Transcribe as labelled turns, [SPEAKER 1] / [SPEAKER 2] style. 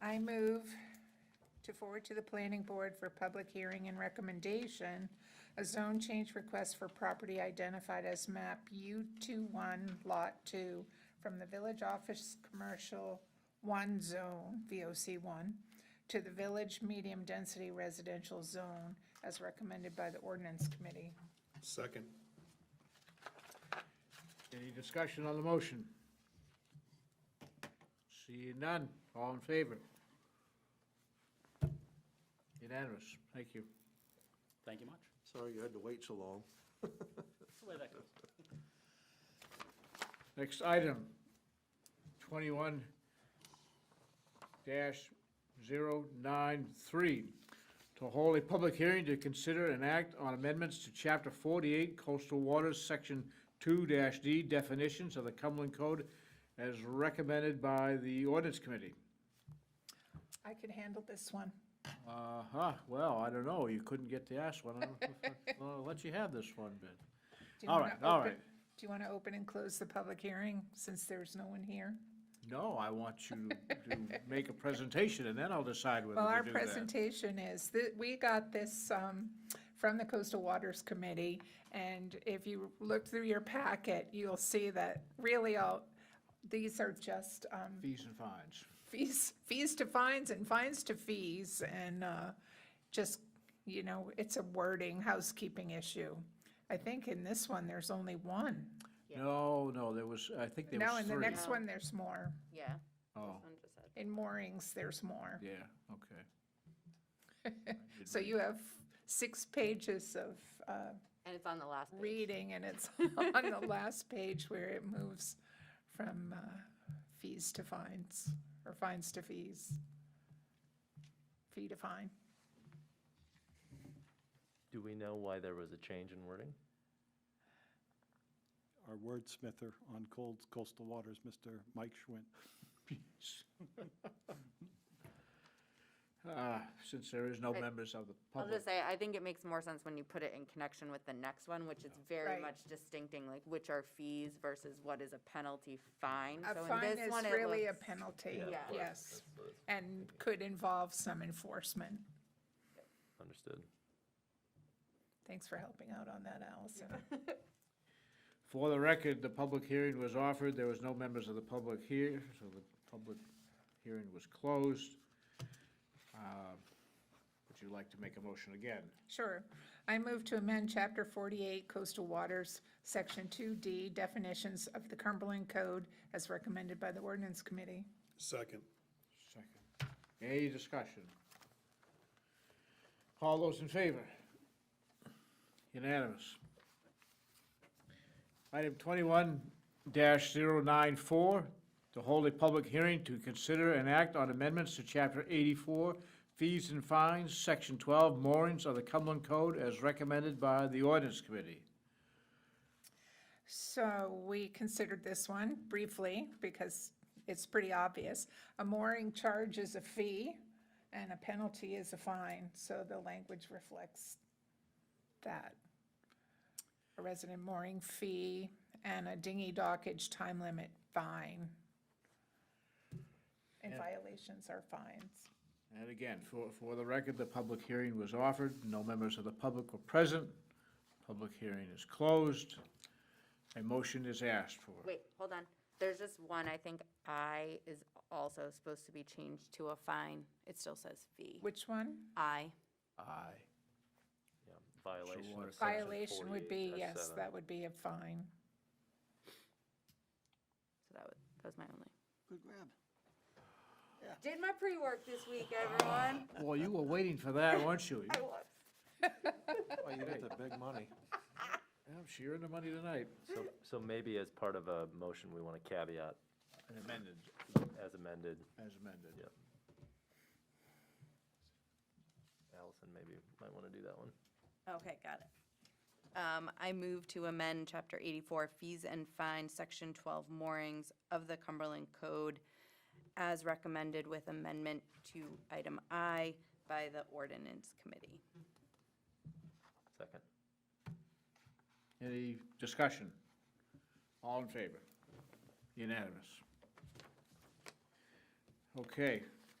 [SPEAKER 1] I move to forward to the planning board for public hearing and recommendation, a zone change request for property identified as map U21 Lot 2 from the Village Office Commercial 1 Zone, VOC 1, to the Village Medium Density Residential Zone as recommended by the ordinance committee.
[SPEAKER 2] Second.
[SPEAKER 3] Any discussion on the motion? See none, all in favor? Unanimous, thank you.
[SPEAKER 4] Thank you much.
[SPEAKER 2] Sorry you had to wait so long.
[SPEAKER 4] That's the way that goes.
[SPEAKER 3] Next item, twenty-one dash zero nine three, to hold a public hearing to consider and act on amendments to chapter forty-eight coastal waters, section two dash D definitions of the Cumberland Code as recommended by the ordinance committee.
[SPEAKER 1] I could handle this one.
[SPEAKER 3] Uh-huh, well, I don't know, you couldn't get the ass one, I don't know if I- I'll let you have this one, but.
[SPEAKER 1] Do you
[SPEAKER 3] All
[SPEAKER 1] wanna
[SPEAKER 3] right, all
[SPEAKER 1] open-
[SPEAKER 3] right.
[SPEAKER 1] Do you want to open and close the public hearing since there's no one here?
[SPEAKER 3] No, I want you to make a presentation, and then I'll decide whether
[SPEAKER 1] Well, our
[SPEAKER 3] to do that.
[SPEAKER 1] presentation is, that we got this um, from the Coastal Waters Committee, and if you look through your packet, you'll see that really all, these are just um,
[SPEAKER 3] Fees and fines.
[SPEAKER 1] fees, fees to fines and fines to fees, and uh, just, you know, it's a wording, housekeeping issue. I think in this one, there's only one.
[SPEAKER 3] No, no, there was, I think there
[SPEAKER 1] No,
[SPEAKER 3] was
[SPEAKER 1] in the
[SPEAKER 3] three.
[SPEAKER 1] next one, there's more.
[SPEAKER 5] Yeah.
[SPEAKER 3] Oh,
[SPEAKER 1] In moorings, there's more.
[SPEAKER 3] yeah, okay.
[SPEAKER 1] So you have six pages of uh,
[SPEAKER 5] And it's on the last page.
[SPEAKER 1] reading, and it's on the last page where it moves from uh, fees to fines, or fines to fees. Fee to fine.
[SPEAKER 6] Do we know why there was a change in wording?
[SPEAKER 7] our wordsmither on cold coastal waters, Mr. Mike Schwint.
[SPEAKER 3] Ah, Since there is no
[SPEAKER 5] I-
[SPEAKER 3] members of the
[SPEAKER 5] I'll
[SPEAKER 3] public.
[SPEAKER 5] just say, I think it makes more sense when you put it in connection with the next one, which is very
[SPEAKER 1] Right.
[SPEAKER 5] much distincting, like which are fees versus what is a penalty fine.
[SPEAKER 1] A
[SPEAKER 5] So in
[SPEAKER 1] fine
[SPEAKER 5] this
[SPEAKER 1] is
[SPEAKER 5] one, it
[SPEAKER 1] really a
[SPEAKER 5] looks-
[SPEAKER 1] penalty,
[SPEAKER 5] Yeah.
[SPEAKER 1] yes, and could involve some enforcement.
[SPEAKER 6] Understood.
[SPEAKER 1] Thanks for helping out on that, Allison.
[SPEAKER 3] For the record, the public hearing was offered, there was no members of the public here, so the public hearing was closed. Uh, Would you like to make a motion again?
[SPEAKER 1] Sure. I move to amend Chapter 48 Coastal Waters, Section 2D, definitions of the Cumberland Code as recommended by the Ordinance Committee.
[SPEAKER 2] Second.
[SPEAKER 3] Second. Any discussion? All those in favor? Unanimous. Item twenty-one 94 to hold a public hearing to consider and act on amendments to chapter eighty-four, fees and fines, section twelve, moorings of the Cumberland Code as recommended by the ordinance committee.
[SPEAKER 1] So we considered this one briefly because it's pretty obvious. A mooring charge is a fee and a penalty is a fine, so the language reflects that. A resident mooring fee and a dinghy dockage time limit fine. And violations are fines.
[SPEAKER 3] And again, for, for the record, the public hearing was offered, no members of the public were present, public hearing is closed, a motion is asked for.
[SPEAKER 5] Wait, hold on. There's just one, I think I is also supposed to be changed to a fine. It still says fee.
[SPEAKER 1] Which one?
[SPEAKER 5] I.
[SPEAKER 3] Aye.
[SPEAKER 6] Yeah, violation
[SPEAKER 3] water-
[SPEAKER 6] of section
[SPEAKER 1] Violation would be,
[SPEAKER 6] 48
[SPEAKER 1] yes,
[SPEAKER 6] S7.
[SPEAKER 1] that would be a fine.
[SPEAKER 5] So that was, that was my only.
[SPEAKER 8] Good grab.
[SPEAKER 5] Did my pre-work this week, everyone.
[SPEAKER 3] Well, you were waiting for that, weren't you?
[SPEAKER 5] I was.
[SPEAKER 2] Oh, you got the big money.
[SPEAKER 3] Yeah, She earned the money tonight.
[SPEAKER 6] So, so maybe as part of a motion, we want to caveat
[SPEAKER 3] And amended.
[SPEAKER 6] as amended.
[SPEAKER 3] As amended.
[SPEAKER 6] Yep. Allison maybe might want to do that one.
[SPEAKER 5] Okay, got it. Um, I move to amend Chapter 84 Fees and Fines, Section 12 Moorings of the Cumberland Code as recommended with amendment to Item I by the Ordinance Committee.
[SPEAKER 6] Second.
[SPEAKER 3] Any discussion? All in favor? Unanimous. Okay,